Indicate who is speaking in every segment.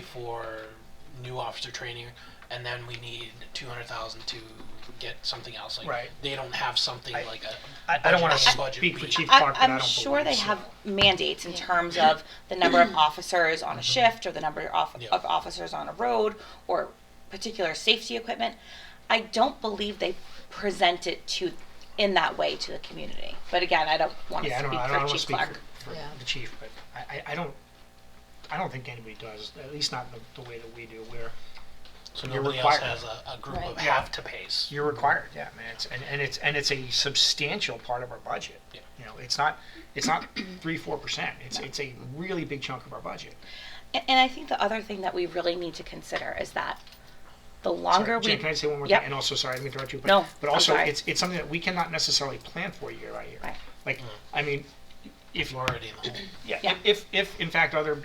Speaker 1: for new officer training, and then we need two hundred thousand to get something else. Like
Speaker 2: Right.
Speaker 1: they don't have something
Speaker 2: I-
Speaker 1: like a.
Speaker 2: I, I don't want
Speaker 1: budget-
Speaker 2: to
Speaker 1: budget
Speaker 2: speak for
Speaker 1: meeting.
Speaker 2: Chief
Speaker 3: I,
Speaker 2: Clark, but I
Speaker 3: I'm
Speaker 2: don't
Speaker 3: sure they
Speaker 2: believe so.
Speaker 3: have mandates in terms of the number of officers on a shift or the number of,
Speaker 1: Yeah.
Speaker 3: of officers on a road or particular safety equipment. I don't believe they present it to, in that way to the community. But again, I don't want to
Speaker 2: Yeah, I don't,
Speaker 3: speak
Speaker 2: I don't, I
Speaker 3: for
Speaker 2: don't wanna
Speaker 3: Chief
Speaker 2: speak
Speaker 3: Clark.
Speaker 2: for, for
Speaker 4: Yeah.
Speaker 2: the chief, but I, I, I don't, I don't think anybody does, at least not the, the way that we do, where
Speaker 1: So
Speaker 2: you're
Speaker 1: nobody else
Speaker 2: required.
Speaker 1: has a, a group
Speaker 4: Right.
Speaker 1: of
Speaker 2: Yeah.
Speaker 1: have to pays.
Speaker 2: you're required, yeah, man, it's, and, and it's, and it's a substantial part of our budget.
Speaker 1: Yeah.
Speaker 2: You know, it's not, it's not three, four percent, it's, it's a really big chunk of our budget.
Speaker 3: A- And I think the other thing that we really need to consider is that the longer
Speaker 2: Sorry, Jen,
Speaker 3: we,
Speaker 2: can I say one more
Speaker 3: Yep.
Speaker 2: thing? And also, sorry, let me interrupt you. But,
Speaker 3: No,
Speaker 2: but
Speaker 3: I'm
Speaker 2: also,
Speaker 3: sorry.
Speaker 2: it's it's something that we cannot necessarily plan for year by year.
Speaker 3: Right.
Speaker 2: Like, I mean, if
Speaker 1: You're already in the hole.
Speaker 2: yeah,
Speaker 3: Yeah.
Speaker 2: If, if if in fact other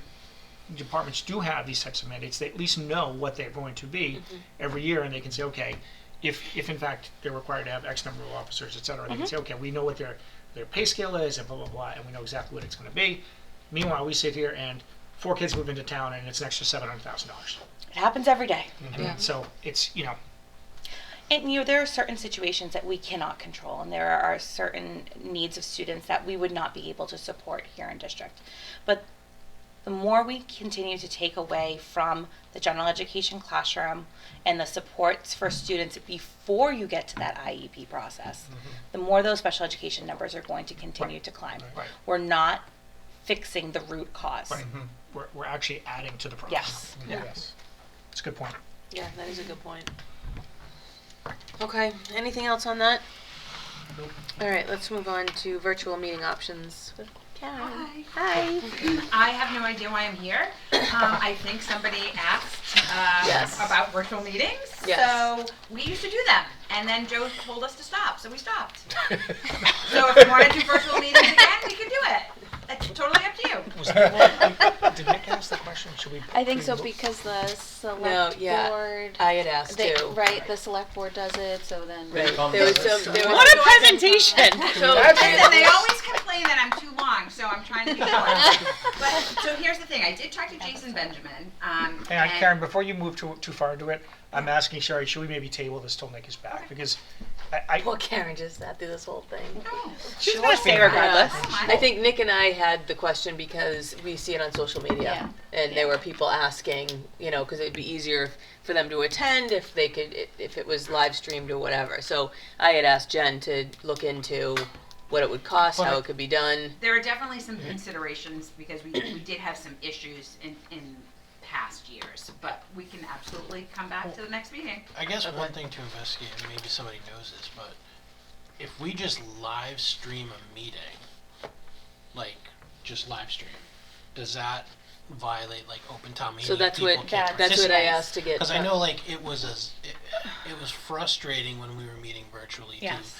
Speaker 2: departments do have these types of mandates, they at least know what they're going to be
Speaker 5: Mm-hmm.
Speaker 2: every year, and they can say, okay, if if in fact they're required to have X number of officers, et cetera, they
Speaker 5: Mm-hmm.
Speaker 2: can say, okay, we know what their their pay scale is, and blah blah blah, and we know exactly what it's going to be. Meanwhile, we sit here and four kids move into town, and it's an extra seven hundred thousand dollars.
Speaker 3: it happens every day.
Speaker 5: Mm-hmm.
Speaker 4: Yeah.
Speaker 2: So it's you know.
Speaker 3: And you know, there are certain situations that we cannot control, and there are certain needs of students that we would not be able to support here in district. But the more we continue to take away from the general education classroom and the supports for students before you get to that IEP process, the more those special education numbers are going to continue to climb.
Speaker 2: Mm-hmm. Right.
Speaker 3: We're not fixing the root because
Speaker 2: Right. We're, we're actually adding to the problem.
Speaker 3: Yes.
Speaker 2: Yeah. It's a good point.
Speaker 4: Yeah, that is a good point. Okay, anything else on that? All right, let's move on to virtual meeting options. with Karen. Hi.
Speaker 5: I have no idea why I'm here. Um, I think somebody asked um,
Speaker 4: Yes.
Speaker 5: about virtual meetings.
Speaker 4: Yes.
Speaker 5: So we used to do them, and then Joe told us to stop, so we stopped. so if you want to do virtual meetings again, we can do it. That's totally up to you.
Speaker 2: Was Nick, did Nick ask the question? Should we?
Speaker 6: I think so
Speaker 2: should we-
Speaker 6: because the
Speaker 4: No,
Speaker 6: select
Speaker 4: yeah.
Speaker 6: board,
Speaker 4: I had asked
Speaker 6: they,
Speaker 4: too.
Speaker 6: right, the select board does it, so then.
Speaker 4: Right.
Speaker 1: Come
Speaker 4: There was
Speaker 1: to us.
Speaker 4: some, there was.
Speaker 3: What a presentation!
Speaker 5: Listen, they always complain that I'm too long, so I'm trying to be short. but so here's the thing: I did talk to Jason Benjamin. Um,
Speaker 2: Hang on,
Speaker 5: and-
Speaker 2: Karen, before you move too, too far into it, I'm asking Sherry, should we maybe table this till Nick is back? Because I, I.
Speaker 4: Well, Karen just sat through this whole thing.
Speaker 5: No,
Speaker 3: She's gonna stay regardless.
Speaker 4: I think Nick and I had the question because we see it on social media, and there were people asking, you know, because it'd be easier for them to attend if they could, if it was live streamed or whatever. So I had asked Jen to look into what it would cost, how it could be done.
Speaker 5: There are definitely some considerations because we, we did have some issues in, in past years, but we can absolutely come back to the next meeting.
Speaker 1: I guess one thing to investigate, and maybe somebody knows this, but if we just live stream a meeting, like just live stream, does that violate like open town meeting?
Speaker 4: So that's
Speaker 1: People
Speaker 4: what
Speaker 1: can't
Speaker 4: that's what I
Speaker 1: participate?
Speaker 4: asked to get.
Speaker 1: Because I know, like, it was as it, it was frustrating when we were meeting virtually
Speaker 3: Yes.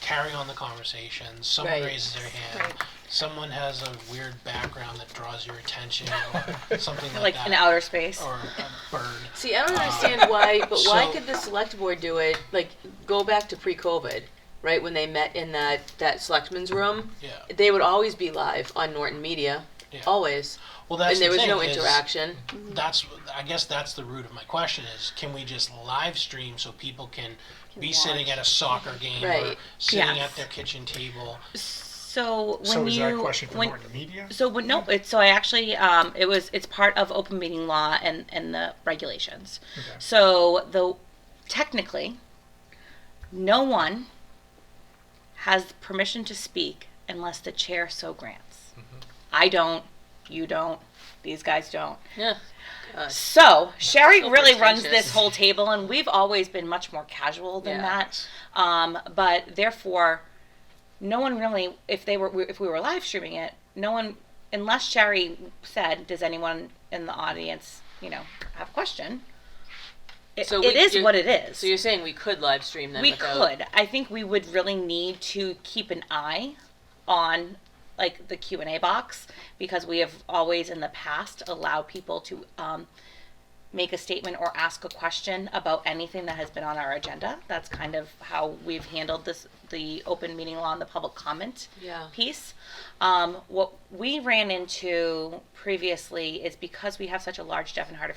Speaker 1: to carry on the conversation. Someone
Speaker 4: Right.
Speaker 1: raises their hand. Someone has a weird background that draws your attention, or something like,
Speaker 3: Like
Speaker 1: that,
Speaker 3: in outer space.
Speaker 1: or a bird.
Speaker 4: See, I don't understand why, but why
Speaker 1: so-
Speaker 4: could the select board do it? Like, go back to pre-COVID, right when they met in that that selectman's room.
Speaker 1: Yeah.
Speaker 4: They would always be live on Norton Media,
Speaker 1: Yeah.
Speaker 4: always,
Speaker 1: Well, that's
Speaker 4: and there
Speaker 1: the
Speaker 4: was
Speaker 1: thing
Speaker 4: no
Speaker 1: is-
Speaker 4: interaction.
Speaker 1: that's I guess that's the root of my question is can we just live stream so people can, be sitting at a soccer game or
Speaker 4: Right.
Speaker 1: sitting
Speaker 3: Yes.
Speaker 1: at their kitchen table
Speaker 3: So when
Speaker 2: So
Speaker 3: you
Speaker 2: is that a question for
Speaker 3: when-
Speaker 2: Norton Media?
Speaker 3: So when, no, it's so I actually um, it was it's part of open meeting law and and the regulations.
Speaker 2: Okay.
Speaker 3: So the technically, no one has permission to speak unless the chair so grants. I don't, you don't, these guys don't.
Speaker 4: Yeah.
Speaker 3: So Sherry
Speaker 4: So
Speaker 3: really runs
Speaker 4: pretentious.
Speaker 3: this whole table, and we've always been much more casual than
Speaker 4: Yeah.
Speaker 3: that. Um, but therefore, no one really, if they were, if we were live streaming it, no one, unless Sherry said, "Does anyone in the audience, you know, have a question?" It,
Speaker 4: So
Speaker 3: it
Speaker 4: we-
Speaker 3: is
Speaker 4: you're-
Speaker 3: what it is.
Speaker 4: So you're saying we could live stream them?
Speaker 3: we
Speaker 4: without-
Speaker 3: could. I think we would really need to keep an eye on like the Q and A box because we have always in the past allowed people to um, make a statement or ask a question about anything that has been on our agenda. That's kind of how we've handled this, the open meeting law and the public comment
Speaker 4: Yeah.
Speaker 3: piece. Um, what we ran into previously is because we have such a large deaf and hard of